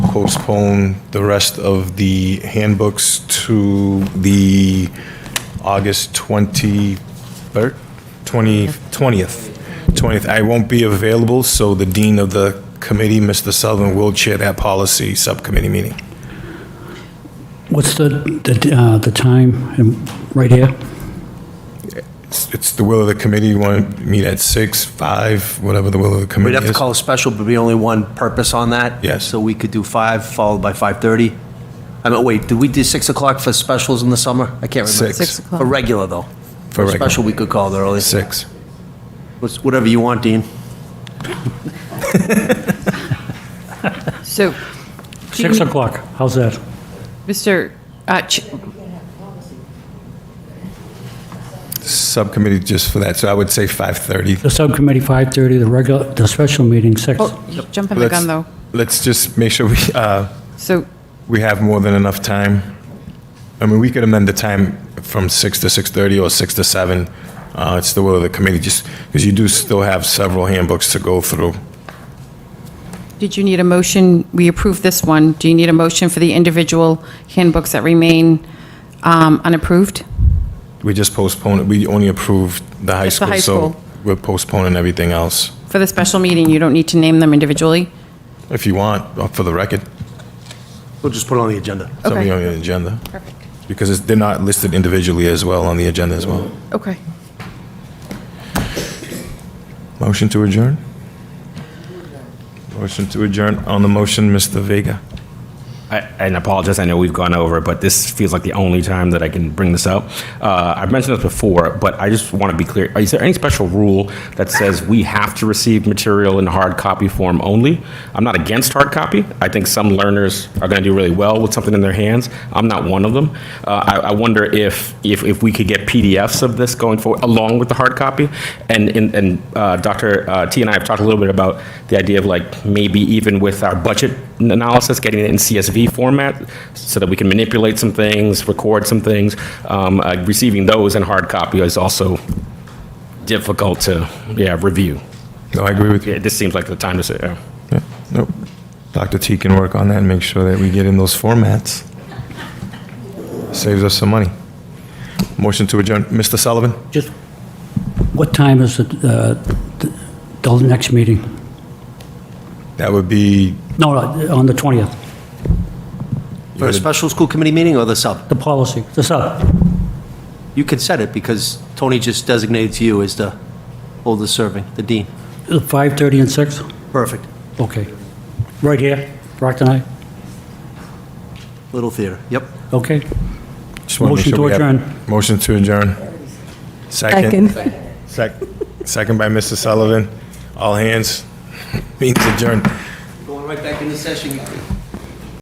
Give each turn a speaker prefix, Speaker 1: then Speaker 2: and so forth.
Speaker 1: postpone the rest of the handbooks to the August 23rd, 20 20th. 20th. I won't be available, so the dean of the committee, Mr. Sullivan, will chair that policy subcommittee meeting.
Speaker 2: What's the, the, uh, the time, um, right here?
Speaker 1: It's it's the will of the committee, you want to meet at 6, 5, whatever the will of the
Speaker 3: We'd
Speaker 1: committee
Speaker 3: have to
Speaker 1: is.
Speaker 3: call a special, but be only one purpose on that.
Speaker 1: Yes.
Speaker 3: So we could do five, followed by 5:30. I mean, wait, did we do 6 o'clock for specials in the summer? I can't remember.
Speaker 1: Six.
Speaker 4: Six
Speaker 3: For
Speaker 4: o'clock.
Speaker 3: regular, though.
Speaker 1: For regular.
Speaker 3: Special, we could call it early.
Speaker 1: 6.
Speaker 3: What's- Whatever you want, Dean.
Speaker 4: So, do you-
Speaker 2: Six o'clock, how's that?
Speaker 4: Mr. uh, Ch-
Speaker 1: Subcommittee just for that, so I would say 5:30.
Speaker 2: The subcommittee, 5:30, the regular, the special meeting, 6.
Speaker 4: oh, you're jumping the
Speaker 1: Let's-
Speaker 4: gun, though.
Speaker 1: Let's just make sure we, uh,
Speaker 4: So,
Speaker 1: we have more than enough time. I mean, we could amend the time from 6 to 6:30 or 6 to 7. Uh, It's the will of the committee, just, because you do still have several handbooks to go through.
Speaker 4: did you need a motion? We approved this one. Do you need a motion for the individual handbooks that remain um, unapproved?
Speaker 1: We just postponed, it. we only approved the high
Speaker 4: Just the
Speaker 1: school,
Speaker 4: high
Speaker 1: so
Speaker 4: school.
Speaker 1: we're postponing everything else.
Speaker 4: For the special meeting, you don't need to name them individually?
Speaker 1: If you want, uh, for the record,
Speaker 3: We'll just put it on the agenda.
Speaker 1: something
Speaker 4: Okay.
Speaker 1: on the agenda.
Speaker 4: Perfect.
Speaker 1: Because it's- they're not listed individually as well on the agenda as well.
Speaker 4: Okay.
Speaker 1: Motion to adjourn? Motion to adjourn. On the motion, Mr. Vega.
Speaker 5: I, and I apologize, I know we've gone over, it, but this feels like the only time that I can bring this up. Uh, I've mentioned this before, but I just want to be clear. Is there any special rule that says we have to receive material in hard copy form only? I'm not against hard copy. I think some learners are going to do really well with something in their hands. I'm not one of them. Uh, I, I wonder if, if, if we could get PDFs of this going forward along with the hard copy. And, and, and uh, Dr. Uh, T and I have talked a little bit about the idea of like maybe even with our budget n- analysis, getting it in CSV format so that we can manipulate some things, record some things. Um, uh, receiving those in hard copy is also difficult to yeah review.
Speaker 1: No, I agree with you.
Speaker 5: Yeah, this seems like the time to say. Yeah.
Speaker 1: Yeah, nope. Dr. T can work on that and make sure that we get in those formats. Saves us some money. Motion to adjourn. Mr. Sullivan?
Speaker 2: Just, what time is the, uh, the- the next meeting?
Speaker 1: That would be,
Speaker 2: No, no, on the 20th,
Speaker 3: For a special school committee meeting or the sub?
Speaker 2: the policy, the sub.
Speaker 3: You can set it because Tony just designated to you as the oldest serving, the dean.
Speaker 2: Is it 5:30 and 6?
Speaker 3: Perfect.
Speaker 2: Okay. Right here, Rockton High?
Speaker 3: Little theater. Yep.
Speaker 2: Okay.
Speaker 1: just wanna make
Speaker 2: Motion
Speaker 1: sure
Speaker 2: to
Speaker 1: we have-
Speaker 2: adjourn.
Speaker 1: Motion to adjourn. Second. Sec- Second by Mr. Sullivan. All hands. Means adjourned.
Speaker 3: Going right back into session.